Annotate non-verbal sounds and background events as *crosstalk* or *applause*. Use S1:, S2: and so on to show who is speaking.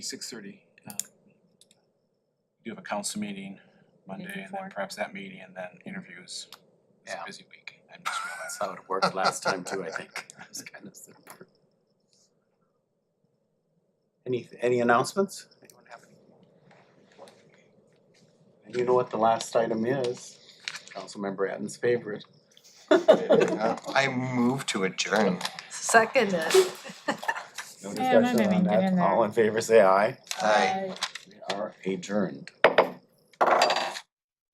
S1: Six thirty. Do have a council meeting Monday and then perhaps that meeting and then interviews. It's a
S2: Yeah.
S1: busy week. I just
S2: That's
S1: realized.
S2: how it worked last time too, I think. It was kind of similar. Any, any announcements? Anyone have any? And you know what the last item is? Councilmember Atten's favorite.
S3: Yeah, *laughs* I move to adjourn.
S4: Second it.
S2: No
S5: Yeah, I'm not
S2: discussion on
S5: even getting
S2: that.
S5: there.
S2: All in favor, say aye.
S3: Aye.
S2: We are adjourned.